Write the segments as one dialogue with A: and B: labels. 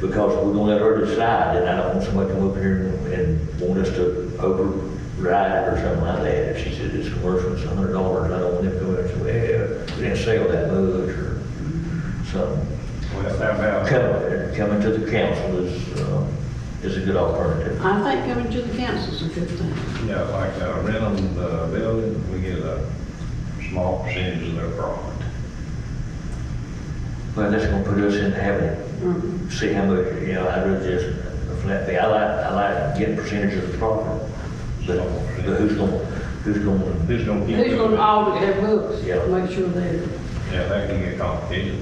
A: because we're gonna let her decide, and I don't want somebody to come up here and, and want us to override or something like that. If she said it's commercial, it's a hundred dollars, I don't want them to go in and say, well, we didn't sell that much, or something.
B: Well, how about,
A: Coming, coming to the council is, uh, is a good alternative.
C: I think coming to the council's a good thing.
B: you know, like uh, renting the building, we get a small percentage of their profit.
A: Well, that's gonna put us in having,
C: Mm.
A: see how much, you know, I'd rather just a flat fee. I like, I like getting percentage of the profit, but, but who's gonna, who's gonna,
B: Who's gonna keep?
C: Who's
B: doing
C: gonna
B: it?
C: audit their books,
A: Yeah.
C: make sure they're,
B: Yeah, that can get complicated.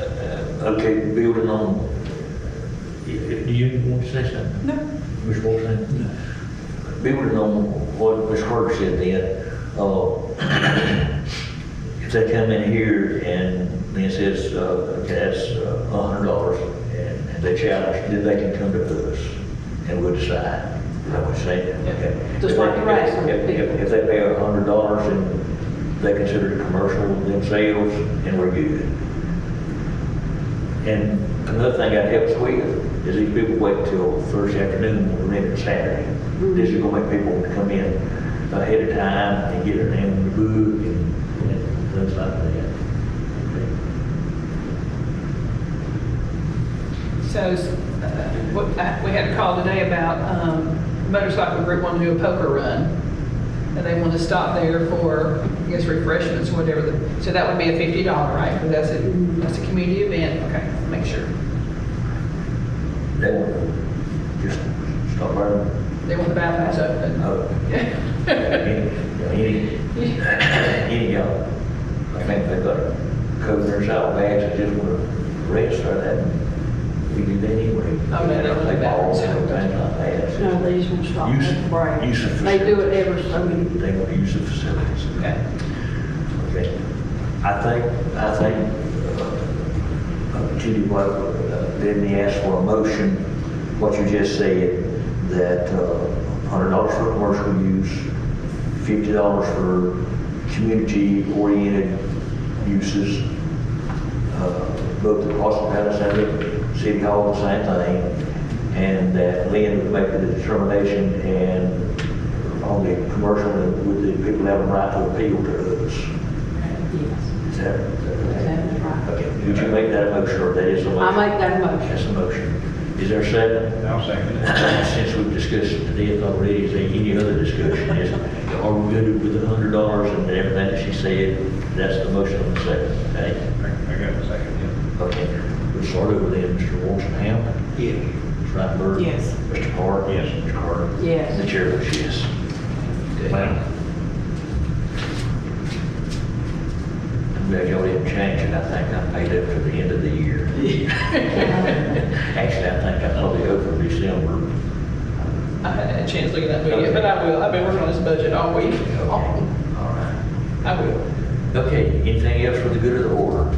A: okay, building on, do you want to say something? No. Ms. Wilson? Building on what Ms. Carter said then, uh, if they come in here and then says, uh, okay, that's a hundred dollars, and and they challenge, then they can come to us, and we'll decide. I would say, okay.
C: Just like the rest of the
A: If- if-
C: people.
A: If they pay a hundred dollars and they consider it commercial themselves, and we're good. And another thing that helps with is these people wait till Thursday afternoon and rent it Saturday. This is gonna make people want to come in ahead of time and get their name in the book and, and things like that.
D: So, uh, what- I- we had a call today about um, motorcycle group wanting to do a poker run. And they want to stop there for, I guess, refreshments, or whatever. the- So that would be a fifty dollar, right? But that's a, that's a community event. Okay, make sure.
A: They want to just stop running.
D: They want the bathrooms open.
A: Uh, Any, any, any of them. I think they've got to cover their saddle bags and just want to rest or that. We do that anyway.
D: Oh, no, they don't do that.
A: Balls and Things like that.
C: no, these will stop
A: Use-
C: at the break.
A: use of
C: They do it
A: facilities.
C: every so many.
A: They want to use the facilities.
D: Okay.
A: Okay. I think, I think, uh, uh, Judy, what, uh, Bidney asked for a motion, what you just said, that uh, $100 for commercial use, $50 for community-oriented uses, uh, both the Austin Palace and the City Hall, the same thing, and that Lynn would make the determination and on the commercial, and would the people have a right to appeal to us?
C: Yes.
A: Is that?
C: That's right.
A: Okay, would you make that a motion, or that is a
C: I
A: motion?
C: make that
A: That's
C: motion.
A: a motion. Is there a second?
B: I'll second it.
A: Since we've discussed it today already, is there any other discussion? Is, are we good with the hundred dollars and everything that she said? That's the motion on the second, okay?
B: I I got a second,
A: Okay, we'll start over then, Mr. Wolfenham. Yes. Ms. Rattenberg.
C: Yes.
A: Mr. Park. Yes. Mr. Carter.
C: Yes.
A: And the chair votes yes. Wow. I'm glad y'all didn't change it, I think I paid up to the end of the year. Actually, I think I probably go for December.
D: I haven't had a chance looking at that yet, but I will. I've been working on this budget all week.
A: Okay, all right.
D: I will.
A: Okay, anything else for the good of the order?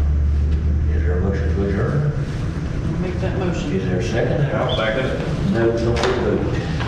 A: Is there a motion to adjourn?
C: Make that motion.
A: Is there a second?
B: yeah. I'll second it.
A: No, no, no.